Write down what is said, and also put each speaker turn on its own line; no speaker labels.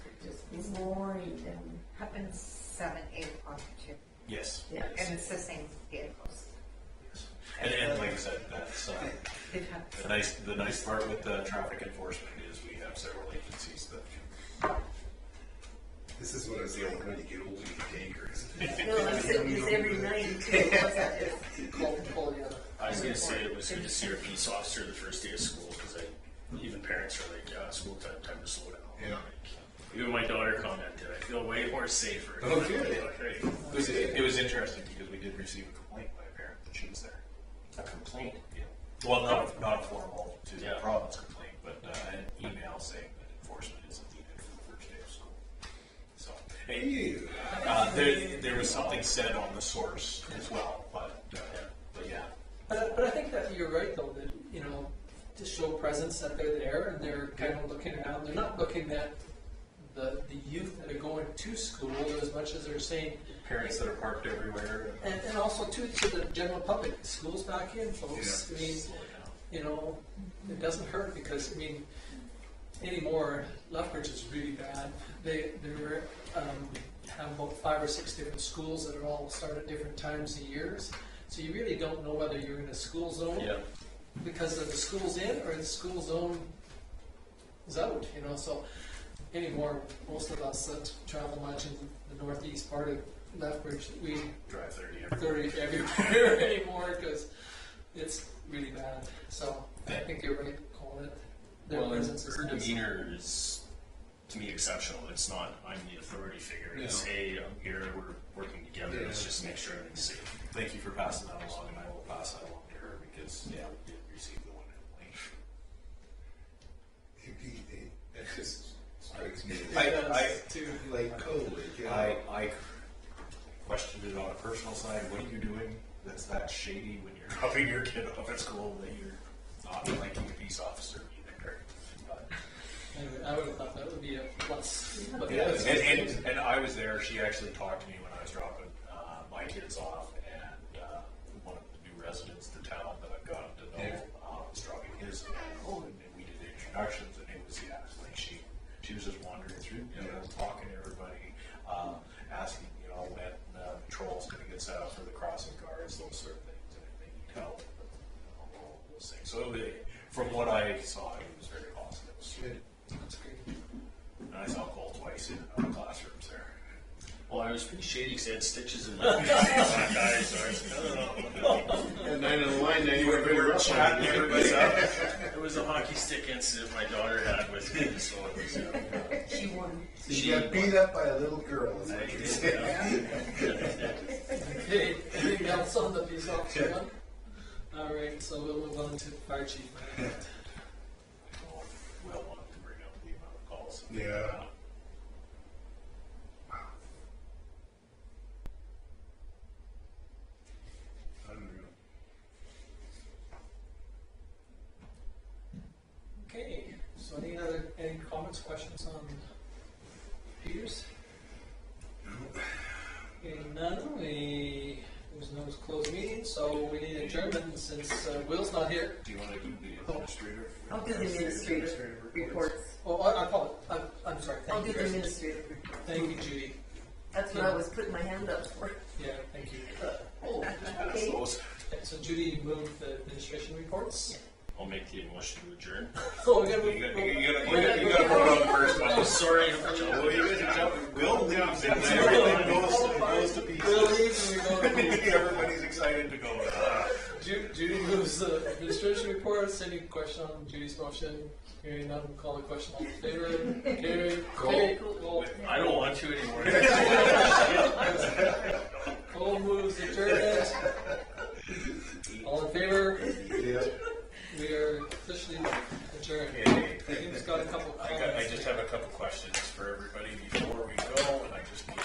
boring and,
Happens seven, eight o'clock too,
Yes.
yeah.
and it's the same vehicles.
Yes. And, and like I said, that's, uh,
They've had
the nice, the nice part with the traffic enforcement is we have several agencies that can
This is what I was saying, when you get older, you get dangerous.
No, I'm sitting this every night too, what's that, just cold, cold, you know.
I was gonna say it was good to see our peace officer the first day of school, because I, even parents are like, yeah, school time, time to slow down.
Yeah.
Even my daughter commented, I feel way more safer.
Oh, good.
Right.
It was, it was interesting because we did receive a complaint by a parent that she was there.
A complaint.
Yeah. Well, not, not a formal to the
Yeah.
province complaint, but uh, an email saying that enforcement isn't needed for the first day of school. So, hey, uh, there, there was something said on the source as well, but, uh, but yeah.
But, I- but I think that you're right though that you know to show presence that they're there and they're kind of looking around. They're not looking at the the youth that are going to school as much as they're saying.
Parents that are parked everywhere.
And, and also too to the general public, schools back in, folks. I mean, you know, it doesn't hurt because I mean, anymore Lethbridge is really bad. They they were, um, have about five or six different schools that are all start at different times of years. So you really don't know whether you're in a school zone
Yeah.
because of the school's in or the school zone is out, you know, so anymore, most of us that travel much in the northeast part of Lethbridge, we
Drive thirty everywhere.
thirty everywhere anymore because it's really bad. So I
Yeah.
think you're right calling it. Their
Well, and
presence is
her
nice.
demeanor is, to me, exceptional. It's not, I'm the authority figure. It's, hey, I'm here, we're working together, let's
Yeah.
just make sure everything's safe.
Thank you for passing that along, and I will pass that along to her because, yeah, we did receive the one complaint.
Indeed, eh? That just strikes me
I,
as
I,
like COVID, you
I,
know?
I questioned it on a personal side. What are you doing that's that shady when you're dropping your kid off at school that you're not like a peace officer either? But,
Anyway, I would have thought that would be a plus. But
yeah,
that's-
and, and, and I was there. She actually talked to me when I was dropping uh, my kids off, and uh, one of the new residents to town that I've gotten to know uh, was dropping his home, and we did the introductions, and it was yeah, it's like she she was just wandering through, you know, talking to everybody, um, asking you know when uh, patrol's going to get set up for the crossing guards, those sort of things, and if they need help, you know, all those things. So they, from what I saw, it was very positive.
Good.
That's great.
And I saw Cole twice in our classrooms there.
Well, I was pretty shady because I had stitches in my eyes, so I was, I don't know.
And then in line, then you were
We
very
were
rough on
chatting
it.
everybody up. It was a hockey stick incident my daughter had with me, so it was, uh,
She won.
You got beat up by a little girl, is what you're saying.
Okay, anything else on the police officer one? All right, so we'll move on to fire chief.
Well, Will wanted to bring up the amount of calls.
Yeah. Unreal.
Okay, so any other, any comments, questions on Peters? Okay, none, we, there's no closed meeting, so we need adjournment since uh, Will's not here.
Do you want to do the administrator?
I'll do the administrative reports.
Oh, I, I call it, I'm, I'm sorry,
I'll
thank
do
you.
the
Chris.
administrative report.
Thank you, Judy,
That's what I was putting my hand up for.
yeah, thank you. Uh,
Oh,
Pass those.
Okay, So Judy moved the administration reports.
I'll make the motion to adjourn.
Oh, we gotta
You
move.
gotta, you gotta, you gotta- you gotta vote on the first
Oh,
one.
sorry.
Well, you gotta jump- Will leaves and then everything goes, goes to
We'll
pieces.
leave and we go to the-
Everybody's excited to go. Ah.
Ju- Judy moves the administration reports. Any question on Judy's motion? Hearing none, call the question. All in favor? Carried. Okay, cool.
I don't want to anymore.